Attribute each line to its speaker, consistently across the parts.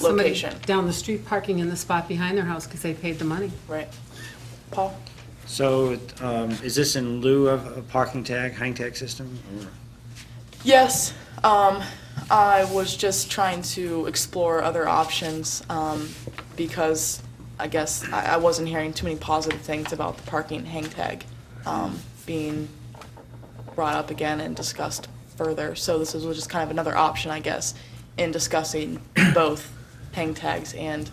Speaker 1: somebody
Speaker 2: location.
Speaker 1: Down the street parking in the spot behind their house because they paid the money.
Speaker 2: Right. Paul?
Speaker 3: So um, is this in lieu of a parking tag, hang tag system? or-
Speaker 2: Yes, um, I was just trying to explore other options, um, because I guess I, I wasn't hearing too many positive things about the parking hang tag, um, being brought up again and discussed further. So this is just kind of another option, I guess, in discussing both hang tags and,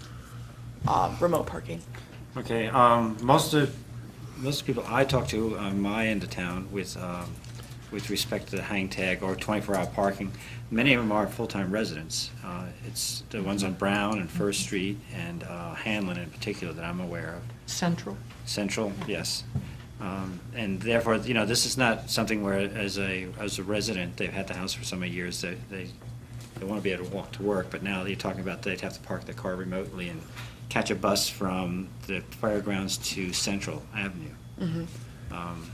Speaker 2: uh, remote parking.
Speaker 3: Okay, um, most of, most people I talk to on my end of town with, um, with respect to the hang tag or twenty-four hour parking, many of them are full-time residents. Uh, It's the ones on Brown and First Street and uh, Hanlon in particular that I'm aware of.
Speaker 4: Central.
Speaker 3: Central, yes. Um, And therefore, you know, this is not something where as a, as a resident, they've had the house for so many years, they, they, they want to be able to walk to work, but now you're talking about they'd have to park their car remotely and catch a bus from the fairgrounds to Central Avenue. Um,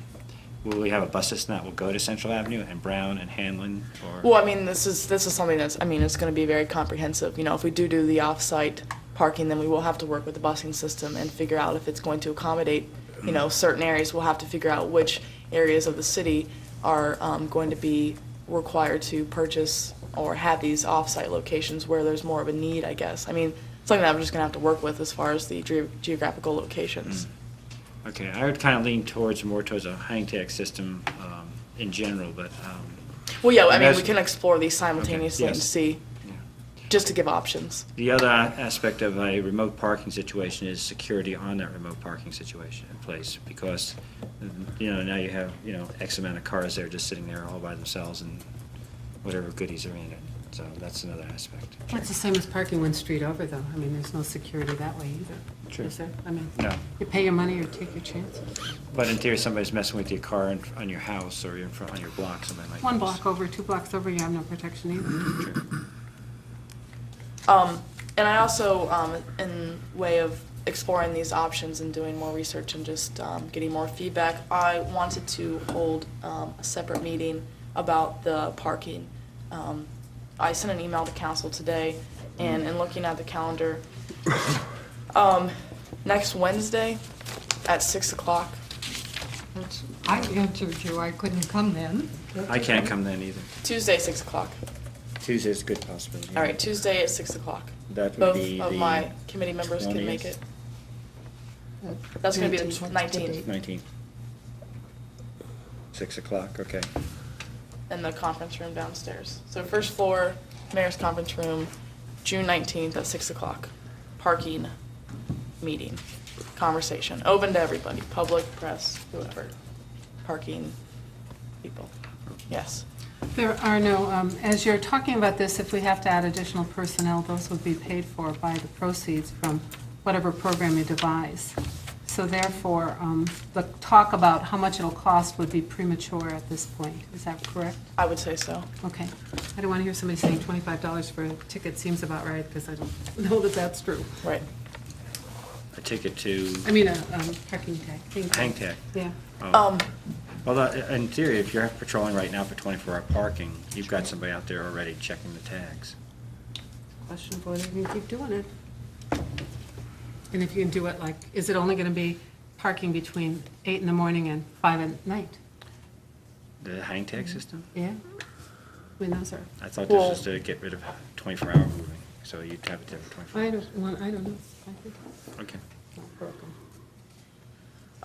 Speaker 3: Will we have a bus system that will go to Central Avenue and Brown and Hanlon or?
Speaker 2: Well, I mean, this is, this is something that's, I mean, it's gonna be very comprehensive, you know, if we do do the off-site parking, then we will have to work with the busing system and figure out if it's going to accommodate, you know, certain areas, we'll have to figure out which areas of the city are, um, going to be required to purchase or have these off-site locations where there's more of a need, I guess, I mean, something that we're just gonna have to work with as far as the ge- geographical
Speaker 3: Mm.
Speaker 2: locations.
Speaker 3: Hmm. Okay, I would kind of lean towards, more towards a hang tag system um, in general, but, um,
Speaker 2: Well, yeah, I mean, we
Speaker 3: Imagine-
Speaker 2: can explore these simultaneously and
Speaker 3: yes.
Speaker 2: see,
Speaker 3: yeah.
Speaker 2: just to give options.
Speaker 3: The other a- aspect of a remote parking situation is security on that remote parking situation in place, because, you know, now you have, you know, X amount of cars there just sitting there all by themselves and whatever goodies are in it, so that's another aspect.
Speaker 1: Well, It's the same as parking one street over, though. I mean, there's no security that way either.
Speaker 3: True.
Speaker 1: Is there? I mean,
Speaker 3: No.
Speaker 1: you pay your money or take your chances.
Speaker 3: But in theory, somebody's messing with your car in- on your house or in front, on your block, somebody might.
Speaker 1: One block over, two blocks over, you have no protection
Speaker 3: Mm-hmm.
Speaker 1: either.
Speaker 2: Um, and I also, um, in way of exploring these options and doing more research and just um, getting more feedback, I wanted to hold um, a separate meeting about the parking. Um, I sent an email to council today, and in looking at the calendar, um, next Wednesday at six o'clock.
Speaker 4: That's- I answered you, I couldn't come then.
Speaker 3: I can't come then either.
Speaker 2: Tuesday, six o'clock.
Speaker 3: Tuesday's a good possibility.
Speaker 2: All right, Tuesday at six o'clock.
Speaker 3: That would
Speaker 2: Both
Speaker 3: be
Speaker 2: of
Speaker 3: the
Speaker 2: my committee members can make
Speaker 3: 20th.
Speaker 2: it. That's gonna be the
Speaker 4: Nineteenth.
Speaker 2: 19th.
Speaker 3: Nineteen. Six o'clock, okay.
Speaker 2: in the conference room downstairs. So first floor, mayor's conference room, June nineteenth at six o'clock. Parking, meeting, conversation, open to everybody, public, press, whoever. Parking, people. Yes.
Speaker 1: There are no, um, as you're talking about this, if we have to add additional personnel, those would be paid for by the proceeds from whatever program you devise. So therefore, um, the talk about how much it'll cost would be premature at this point. Is that correct?
Speaker 2: I would say so.
Speaker 1: Okay. I don't want to hear somebody saying $25 for a ticket seems about right, because I don't know that that's true.
Speaker 2: Right.
Speaker 3: A ticket to
Speaker 1: I mean, a um, parking tag. Thank you.
Speaker 3: hang tag.
Speaker 1: Yeah.
Speaker 2: Um,
Speaker 3: Although, in theory, if you're patrolling right now for 24-hour parking, you've got somebody out there already checking the tags.
Speaker 1: Question of whether you can keep doing it. And if you can do it, like, is it only going to be parking between eight in the morning and five at night?
Speaker 3: The hang tag
Speaker 2: Mm-hmm.
Speaker 3: system?
Speaker 1: Yeah? I mean, those are,
Speaker 3: I thought this
Speaker 2: Well-
Speaker 3: was to get rid of 24-hour moving, so you'd have it there for 24.
Speaker 1: I don't, want- I don't know. I think
Speaker 3: Okay.
Speaker 1: it's not broken.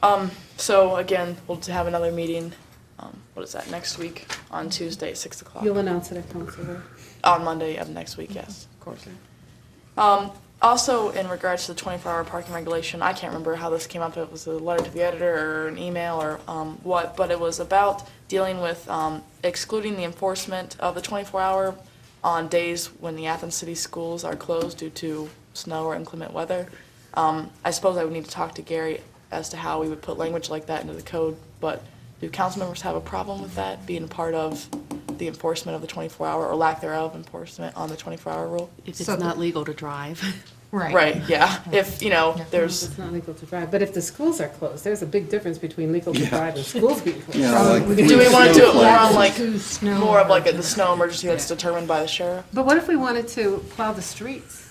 Speaker 2: um, so again, we'll have another meeting, um, what is that, next week on Tuesday at six o'clock?
Speaker 1: You'll announce it at council, right?
Speaker 2: On Monday of next week, yes, of course. Um, also, in regards to the twenty-four hour parking regulation, I can't remember how this came up, it was a letter to the editor or an email or, um, what, but it was about dealing with, um, excluding the enforcement of the twenty-four hour on days when the Athens City schools are closed due to snow or inclement weather. Um, I suppose I would need to talk to Gary as to how we would put language like that into the code, but do council members have a problem with that being part of the enforcement of the twenty-four hour or lack thereof enforcement on the twenty-four hour rule?
Speaker 5: If it's
Speaker 4: So
Speaker 5: not
Speaker 4: the-
Speaker 5: legal to drive.
Speaker 4: Right.
Speaker 2: Right, yeah, if, you know,
Speaker 4: Yeah.
Speaker 2: there's,
Speaker 1: It's not legal to drive, but if the schools are closed, there's a big difference between legal to drive and schools being closed.
Speaker 2: do we wanna do it more on like,
Speaker 4: Snow
Speaker 2: more of like a- the snow emergency that's determined by the sheriff?
Speaker 1: But what if we wanted to plow the streets?